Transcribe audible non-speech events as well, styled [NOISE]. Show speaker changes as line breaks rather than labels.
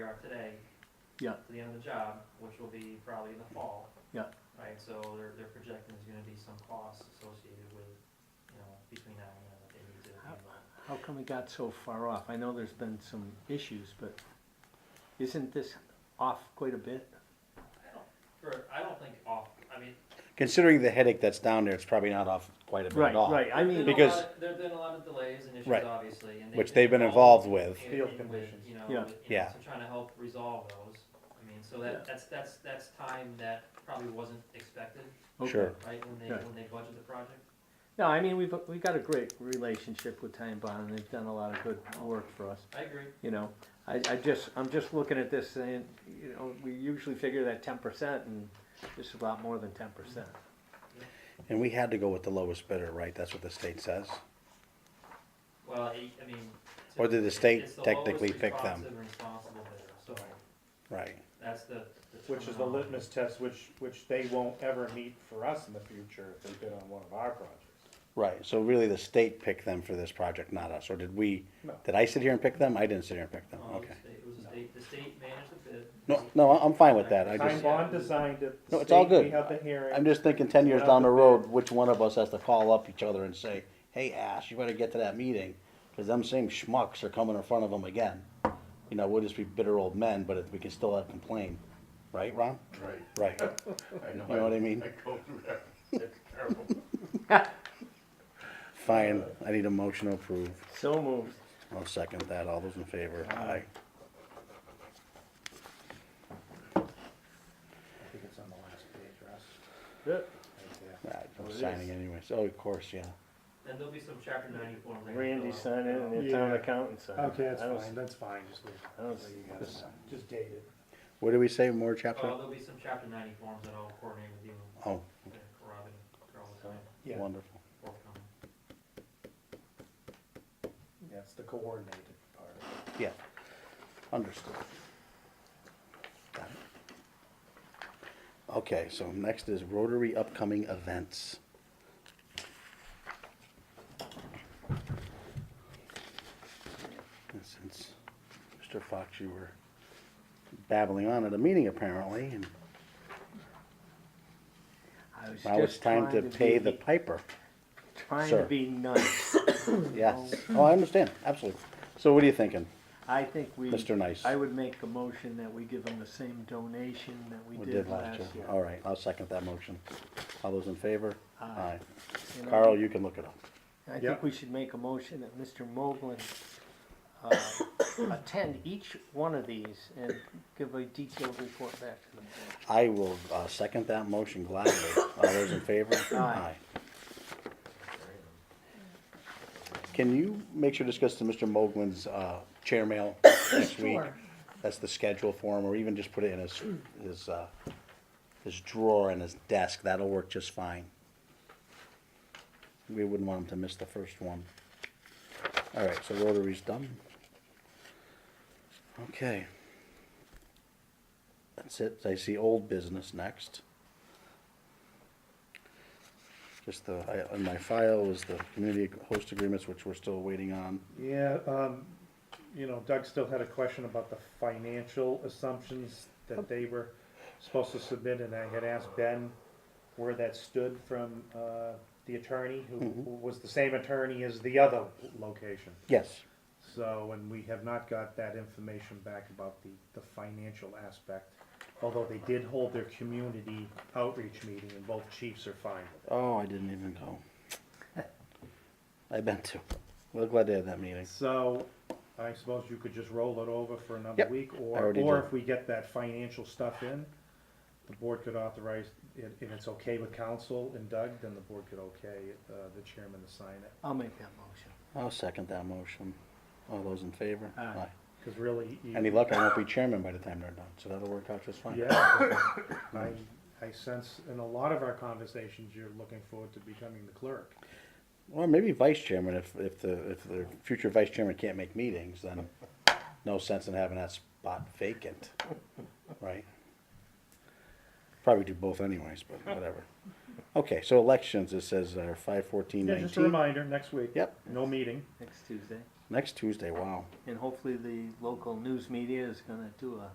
are today.
Yeah.
To the end of the job, which will be probably in the fall.
Yeah.
Right, so they're, they're projecting there's gonna be some costs associated with, you know, between now and then that they need to.
How- How come we got so far off? I know there's been some issues, but isn't this off quite a bit?
I don't, for, I don't think off, I mean,
Considering the headache that's down there, it's probably not off quite a bit
Right,
at all.
right, I
there've
mean,
been a
because-
lot of- There've been a lot of delays and issues,
Right.
obviously, and.
Which they've been
involved
involved with.
in-
Field
in with,
conditions.
You know,
Yeah.
with- you know,
Yeah.
so trying to help resolve those. I mean, so
Yeah.
that, that's, that's, that's time that probably wasn't expected,
okay.
Sure.
right, when they,
Yeah.
when they budget the project.
No, I mean, we've, we've got a great relationship with Time Bond, and they've done a lot of good work for us,
I agree.
you know? I, I just, I'm just looking at this saying, you know, we usually figure that ten percent, and this is a lot more than ten percent.
And we had to go with the lowest bidder, right? That's what the state says.
Well, I, I mean.
Or did the
it's-
state
it's the
technically
lowest
pick them?
responsive and responsible bidder, so
Right.
that's the.
Which is the
terminology.
litmus test, which, which they won't ever meet for us in the future if they bid on one of our projects.
Right. So really the state picked them for this project, not us. Or did we,
No.
did I sit here and pick them? I didn't sit here and pick them.
No, it was
Oh, Okay.
the state- Um, It was the state, the state managed the bid.
No, no, I- I'm fine with that. I
Fine.
Time
just,
Bond designed it. the
No, it's all
state, We
good.
had the hearing.
I'm just thinking ten years down the road, which one of us has to call up each other and say, hey, Ash, you better get to that meeting, because them same schmucks are coming in front of them again. You know, we'll just be bitter old men, but we can still have complain. Right, Ron?
Right.
Right.
I
You know what I mean?
I go through that. It's terrible.
Fine, I need a motion to approve.
So moved.
I'll second that. All those in favor? Aye.
I think it's on the last page, Russ.
Good.
Right,
Oh, it
I'm
is.
signing anyways. Oh, of course, yeah.
And there'll be some chapter ninety forms. I can
Randy
fill out.
signed it, and the
Yeah.
town accountant signed it.
[LAUGHS] Okay, that's
I don't-
fine, that's fine, just leave
I don't
it.
see-
You got it. Just date it.
What do we say, more
Oh,
chapter?
there'll be some chapter ninety forms that I'll coordinate with you and
Oh,
Robin, Carlos, and
Yeah,
wonderful.
forthcoming.
yeah, it's the coordinated part.
Yeah, understood. Got it. Okay, so next is Rotary upcoming events. And since Mr. Fox, you were babbling on at a meeting apparently, and
I was
now it's
just
time to
trying
pay the
be-
piper.
Trying to
sir.
be nice.
[COUGHS] Yes,
Um,
oh, I understand, absolutely. So what are you thinking?
I think we.
Mr. Nice.
I would make a motion that we give them the same donation that we did last year.
All right, I'll second that motion. All those in favor?
Aye. You know,
Carl, you can look it up.
I
Yeah.
think we should make a motion that Mr. Moglen,
[COUGHS]
uh, attend each one of these and give a detailed report back to the board.
I will uh, second that motion gladly. All those in favor?
Aye.
Can you make sure to discuss to Mr. Moglen's uh, chair mail next week? That's the schedule for him, or even just put it in his, his, uh, his drawer in his desk. That'll work just fine. We wouldn't want him to miss the first one. All right, so Rotary's done. Okay. That's it. I see old business next. Just the, I, in my file was the community host agreements, which we're still waiting on.
Yeah, um, you know, Doug still had a question about the financial assumptions that they were supposed to submit, and I had asked Ben where that stood from, uh, the attorney, who
Mhm.
who was the same attorney as the other location.
Yes.
So, and we have not got that information back about the, the financial aspect, although they did hold their community outreach meeting, and both chiefs are fine with
Oh, I didn't even go. I've been to. We're glad they had that meeting.
it. So, I suppose you could just roll it over for another
Yep,
week, or,
already
or
did.
if we get that financial stuff in, the board could authorize, it, and it's okay with council and Doug, then the board could okay, uh, the chairman to sign it.
I'll make that motion.
I'll second that motion. All those in favor?
Aye.
Cause really. you-
Any luck, I won't be chairman by the time they're done, so that'll work out just fine.
Yeah, I, I sense in a lot of our conversations, you're looking forward to becoming the clerk.
Or maybe vice chairman, if, if the, if the future vice chairman can't make meetings, then no sense in having that spot vacant, right? Probably do both anyways, but whatever. Okay, so elections, it says, uh, five fourteen
Yeah,
nineteen.
just a reminder, next week.
Yep.
No meeting.
Next Tuesday.
Next Tuesday, wow.
And hopefully the local news media is gonna do a